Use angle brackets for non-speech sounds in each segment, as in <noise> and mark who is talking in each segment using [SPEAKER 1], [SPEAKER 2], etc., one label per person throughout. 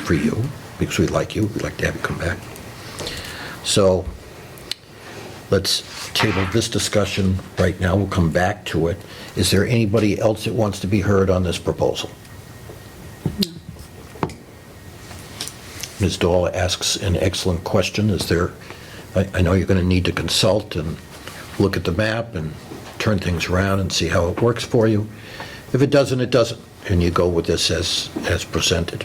[SPEAKER 1] for you, because we like you, we'd like to have you come back. So let's table this discussion right now, we'll come back to it. Is there anybody else that wants to be heard on this proposal? Ms. Dahl asks an excellent question. Is there, I I know you're going to need to consult and look at the map and turn things around and see how it works for you. If it doesn't, it doesn't, and you go with this as, as presented.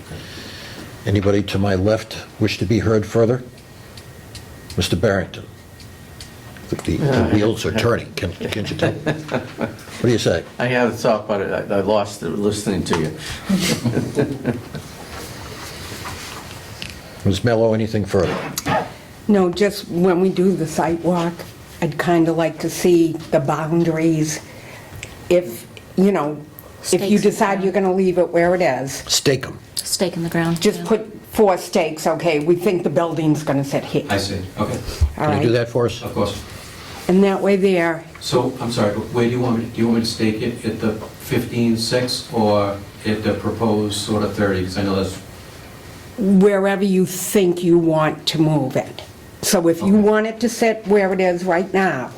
[SPEAKER 1] Anybody to my left wish to be heard further? Mr. Barrington? The the wheels are turning, Can- can't you tell? What do you say?
[SPEAKER 2] I had a thought, but I I lost it listening to you.
[SPEAKER 1] Ms. Mello, anything further?
[SPEAKER 3] No, just when we do the site walk, I'd kind of like to see the boundaries. If, you know, if you
[SPEAKER 4] Stakes.
[SPEAKER 3] decide you're going to leave it where it is,
[SPEAKER 1] Stake them.
[SPEAKER 4] Stake in the ground.
[SPEAKER 3] just
[SPEAKER 4] yeah.
[SPEAKER 3] put four stakes, okay, we think the building's going to sit here.
[SPEAKER 5] I see, okay,
[SPEAKER 3] All
[SPEAKER 1] Can you do
[SPEAKER 3] right,
[SPEAKER 1] that for us?
[SPEAKER 5] of course.
[SPEAKER 3] and that way there,
[SPEAKER 5] So, I'm sorry, but where do you want me, to- do you want me to stake it, at the 15.6 or at the proposed sort of 30? Because I know that's,
[SPEAKER 3] wherever you think you want to move it. So if you
[SPEAKER 5] Okay.
[SPEAKER 3] want it to sit where it is right now,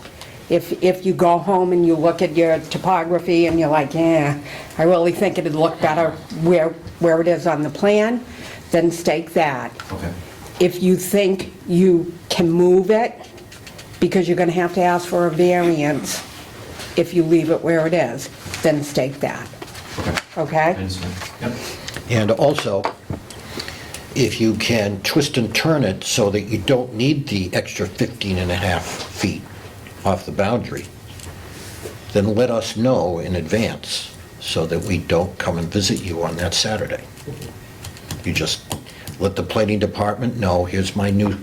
[SPEAKER 3] if, if you go home and you look at your topography and you're like, yeah, I really think it'd look better where, where it is on the plan, then stake that.
[SPEAKER 5] okay,
[SPEAKER 3] If you think you can move it, because you're gonna have to ask for a variance if you leave it where it is, then stake that,
[SPEAKER 5] okay, I
[SPEAKER 3] okay?
[SPEAKER 5] understand, yep.
[SPEAKER 1] And also, if you can twist and turn it so that you don't need the extra 15 and a half feet off the boundary, then let us know in advance so that we don't come and visit you on that Saturday. You just let the planning department know, here's my new,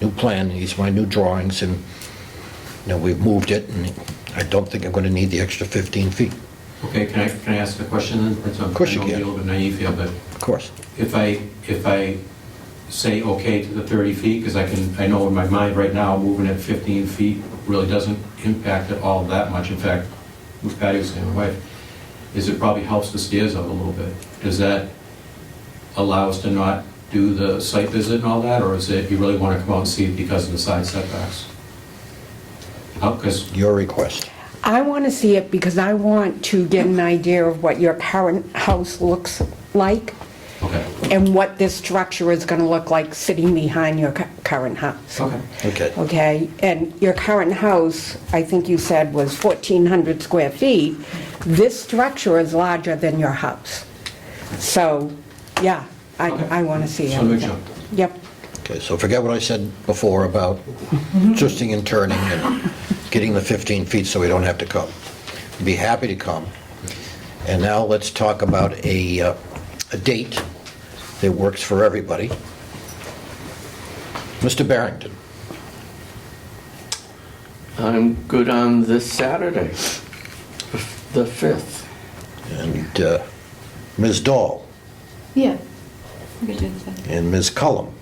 [SPEAKER 1] new plan, here's my new drawings, and, you know, we've moved it, and I don't think I'm going to need the extra 15 feet.
[SPEAKER 5] Okay, can I, can I ask a question then? That's-
[SPEAKER 1] Of course you
[SPEAKER 5] I
[SPEAKER 1] can.
[SPEAKER 5] know I'm being a little bit naive here, but
[SPEAKER 1] Of course.
[SPEAKER 5] if I, if I say okay to the 30 feet, because I can, I know in my mind right now, moving at 15 feet really doesn't impact it all that much. In fact, with Patty was saying, my wife, is it probably helps the stairs up a little bit. Does that allow us to not do the site visit and all that, or is it, you really want to come out and see it because of the side setbacks? Oh, Because,
[SPEAKER 1] Your request.
[SPEAKER 3] I want to see it because I want to get an idea of what your current house looks like
[SPEAKER 5] okay,
[SPEAKER 3] and what this structure is going to look like sitting behind your cu- current house.
[SPEAKER 5] okay,
[SPEAKER 1] Okay.
[SPEAKER 3] Okay, and your current house, I think you said, was 1,400 square feet. This structure is larger than your house. So, yeah, I,
[SPEAKER 5] Okay.
[SPEAKER 3] I want to see
[SPEAKER 5] Just wanna make
[SPEAKER 3] everything.
[SPEAKER 5] sure.
[SPEAKER 3] Yep,
[SPEAKER 1] Okay, so forget what I said before about twisting and turning and getting the 15 feet so we don't have to come. Be happy to come. And now let's talk about a, uh, a date that works for everybody. Mr. Barrington,
[SPEAKER 2] I'm good on this Saturday, the 5th.
[SPEAKER 1] and uh, Ms. Dahl,
[SPEAKER 6] Yeah. We could do the same.
[SPEAKER 1] and Ms. Cullum.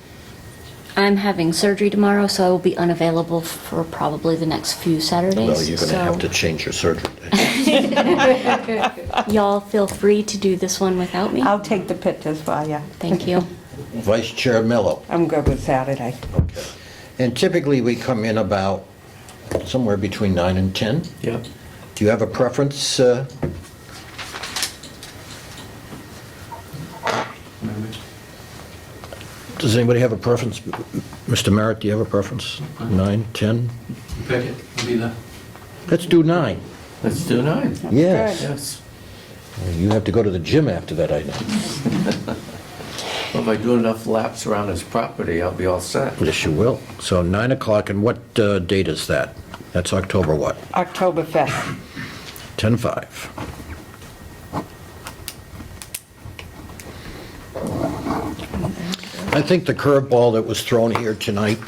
[SPEAKER 4] I'm having surgery tomorrow, so I will be unavailable for probably the next few Saturdays.
[SPEAKER 1] Well, you're going to have to
[SPEAKER 4] so
[SPEAKER 1] change your surgery. <laughs> date.
[SPEAKER 4] Y'all feel free to do this one without me.
[SPEAKER 3] I'll take the pictures for you.
[SPEAKER 4] Thank you.
[SPEAKER 1] Vice Chair Mello.
[SPEAKER 3] I'm good with Saturday.
[SPEAKER 1] And typically, we come in about somewhere between 9 and 10.
[SPEAKER 2] Yep.
[SPEAKER 1] Do you have a preference, uh, Does anybody have a preference? Mr. Merritt, do you have a preference? Nine, 10?
[SPEAKER 5] You pick it, I'll be there.
[SPEAKER 1] Let's do nine.
[SPEAKER 2] Let's do 9.
[SPEAKER 1] Yes.
[SPEAKER 2] Yes.
[SPEAKER 1] You have to go to the gym after that, I know.
[SPEAKER 2] Well, If I do enough laps around his property, I'll be all set.
[SPEAKER 1] Yes, you will. So 9 o'clock, and what uh, date is that? That's October what?
[SPEAKER 3] October 5th.
[SPEAKER 1] 10-5. I think the curveball that was thrown here tonight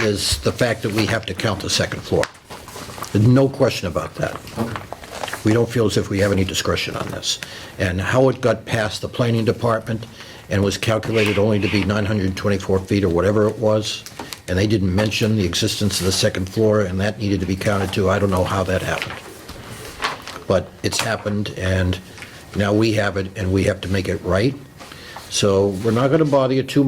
[SPEAKER 1] is the fact that we have to count the second floor. There's no question about that. We don't feel as if we have any discretion on this. And how it got past the planning department and was calculated only to be 924 feet or whatever it was, and they didn't mention the existence of the second floor, and that needed to be counted too. I don't know how that happened but it's happened, and now we have it, and we have to make it right. So we're not going to bother you too